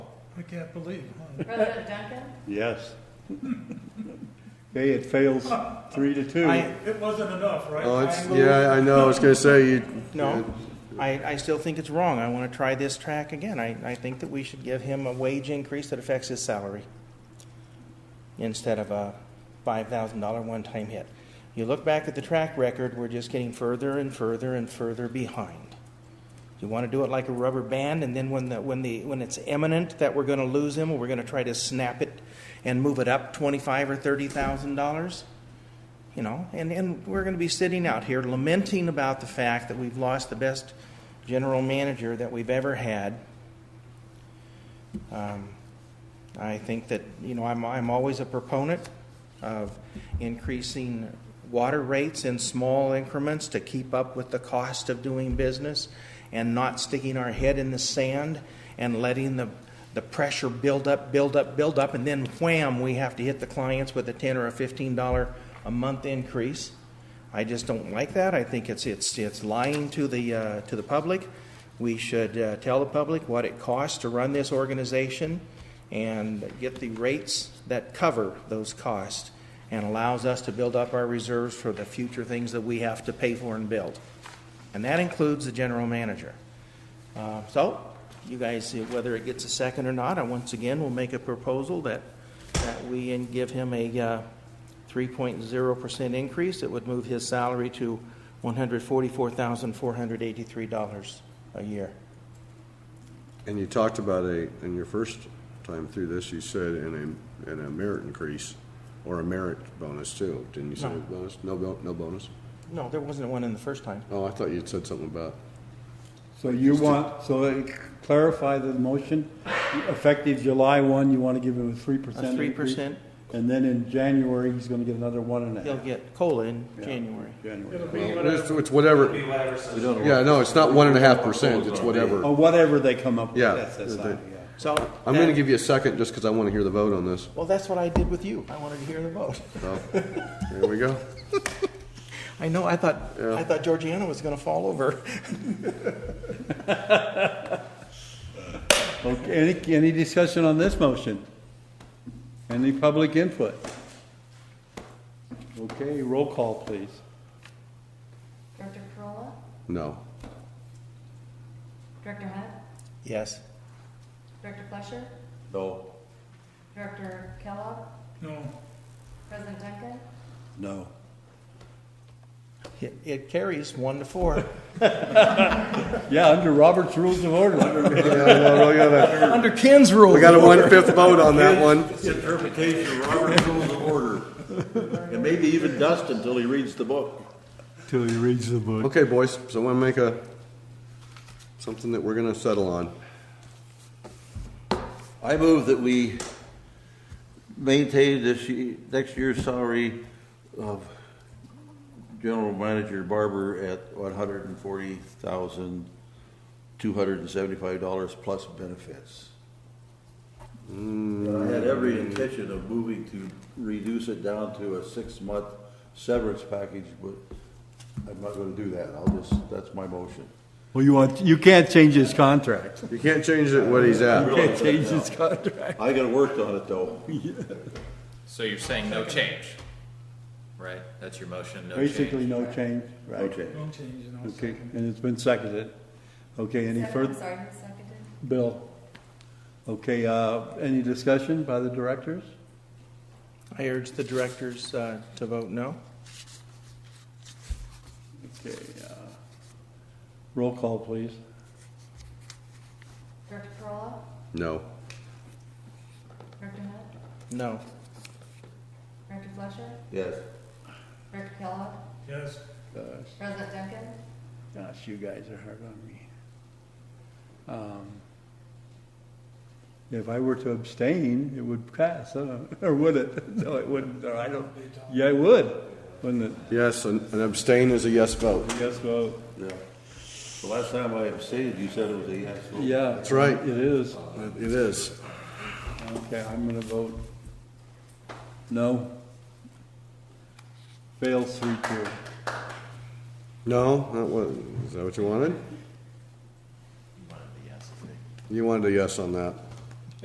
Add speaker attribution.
Speaker 1: I can't believe, huh?
Speaker 2: President Duncan?
Speaker 3: Yes. Okay, it fails three to two.
Speaker 4: I,
Speaker 1: It wasn't enough, right?
Speaker 5: Oh, it's,
Speaker 1: Triangle?
Speaker 5: yeah, I know, I was gonna say, you.
Speaker 4: no, I, I still think it's wrong. I want to try this track again. I, I think that we should give him a wage increase that affects his salary instead of a $5,000 one time hit. You look back at the track record, we're just getting further and further and further behind. You want to do it like a rubber band, and then when, the, when, the, when it's imminent that we're going to lose him, we're going to try to snap it and move it up twenty-five or $30,000? you know, and, and we're going to be sitting out here lamenting about the fact that we've lost the best general manager that we've ever had. Um, I think that, you know, I'm, I'm always a proponent of increasing water rates in small increments to keep up with the cost of doing business and not sticking our head in the sand and letting the, the pressure build up, build up, build up, and then wham, we have to hit the clients with a 10 or a $15 a month increase. I just don't like that. I think it's, it's, it's lying to the, uh, to the public. We should uh, tell the public what it costs to run this organization and get the rates that cover those costs and allows us to build up our reserves for the future things that we have to pay for and build. And that includes the general manager. Uh, So, you guys, whether it gets a second or not, I once again will make a proposal that, that we and give him a uh, 3.0% increase. It would move his salary to $144,483 a year.
Speaker 5: And you talked about a, in your first time through this, you said in a, in a merit increase, or a merit bonus too, didn't you say
Speaker 4: No.
Speaker 5: bonus? No, bo- no bonus?
Speaker 4: No, there wasn't one in the first time.
Speaker 5: Oh, I thought you'd said something about,
Speaker 3: So you want, so let me clarify the motion, effective July one, you want to give him a three
Speaker 4: A
Speaker 3: percent
Speaker 4: three
Speaker 3: increase?
Speaker 4: percent,
Speaker 3: And then in January, he's going to get another one and a
Speaker 4: he'll
Speaker 3: half.
Speaker 4: get COLA in
Speaker 3: Yeah.
Speaker 4: January.
Speaker 3: January.
Speaker 1: It'll be
Speaker 5: well, it's
Speaker 1: whatever.
Speaker 5: it's whatever,
Speaker 6: Be whatever says-
Speaker 5: yeah, no, it's not one and a half percent, it's whatever.
Speaker 4: Oh.
Speaker 3: Or whatever they come up with.
Speaker 5: Yeah.
Speaker 3: That's, that's,
Speaker 5: The- the-
Speaker 3: fine, yeah.
Speaker 4: So.
Speaker 5: I'm gonna give you a second, just because I want to hear the vote on this,
Speaker 4: Well, that's what I did with you. I wanted to hear the vote.
Speaker 5: so, there we go.
Speaker 4: I know, I thought, I thought Georgiana was going to fall over.
Speaker 3: Okay, any, any discussion on this motion? Any public input? Okay, roll call, please.
Speaker 2: Director Corolla?
Speaker 5: No,
Speaker 2: Director Hunt?
Speaker 4: Yes.
Speaker 2: Director Fletcher?
Speaker 6: No.
Speaker 2: Director Kellogg?
Speaker 1: No,
Speaker 2: President Duncan?
Speaker 3: No.
Speaker 4: It- It carries one to four.
Speaker 3: Yeah, under Robert's Rules of Order.
Speaker 5: yeah, no, we got
Speaker 4: Under Ken's
Speaker 5: a,
Speaker 4: rule.
Speaker 5: we got a one-fifth vote on that one.
Speaker 6: It's interpretation of Robert's Rules of Order. And maybe even dust until he reads the book.
Speaker 3: Till he reads the book.
Speaker 5: Okay, boys, so I want to make a, something that we're going to settle on.
Speaker 6: I move that we maintain this, ye- next year's salary of General Manager Barber at one hundred and forty thousand, two hundred and seventy-five dollars plus benefits. I had every intention of moving to reduce it down to a six-month severance package, but I'm not gonna do that. I'll just, that's my motion.
Speaker 3: Well, you want, you can't change his contract.
Speaker 5: You can't change it what he's at.
Speaker 3: You can't change his contract.
Speaker 6: I gotta work on it, though.
Speaker 7: So you're saying no change, right? That's your motion, no change?
Speaker 3: Basically, no change, right?
Speaker 6: Okay.
Speaker 1: no change, no
Speaker 3: Okay,
Speaker 1: second.
Speaker 3: and it's been seconded. Okay, any
Speaker 2: Second- I'm
Speaker 3: further,
Speaker 2: Sorry, who seconded?
Speaker 3: Bill? Okay, uh, any discussion by the directors?
Speaker 4: I urge the directors uh, to vote no.
Speaker 3: Okay, uh, roll call, please.
Speaker 2: Director Corolla?
Speaker 5: No.
Speaker 2: Director Hunt?
Speaker 4: No.
Speaker 2: Director Fletcher?
Speaker 6: Yes.
Speaker 2: Director Kellogg?
Speaker 1: Yes,
Speaker 3: Gosh,
Speaker 2: President Duncan?
Speaker 3: gosh, you guys are hard on me. Um, If I were to abstain, it would pass, huh? or would it? No, it wouldn't, or I don't, yeah, it would, wouldn't it?
Speaker 5: Yes, an an abstain is a yes vote.
Speaker 3: Yes vote.
Speaker 6: Yeah. The last time I abstained, you said it was a yes. vote.
Speaker 3: Yeah.
Speaker 5: That's right.
Speaker 3: It is.
Speaker 5: It is.
Speaker 3: Okay, I'm gonna vote no. Fails three two.
Speaker 5: No, that was, is that what you wanted? You wanted a yes on that.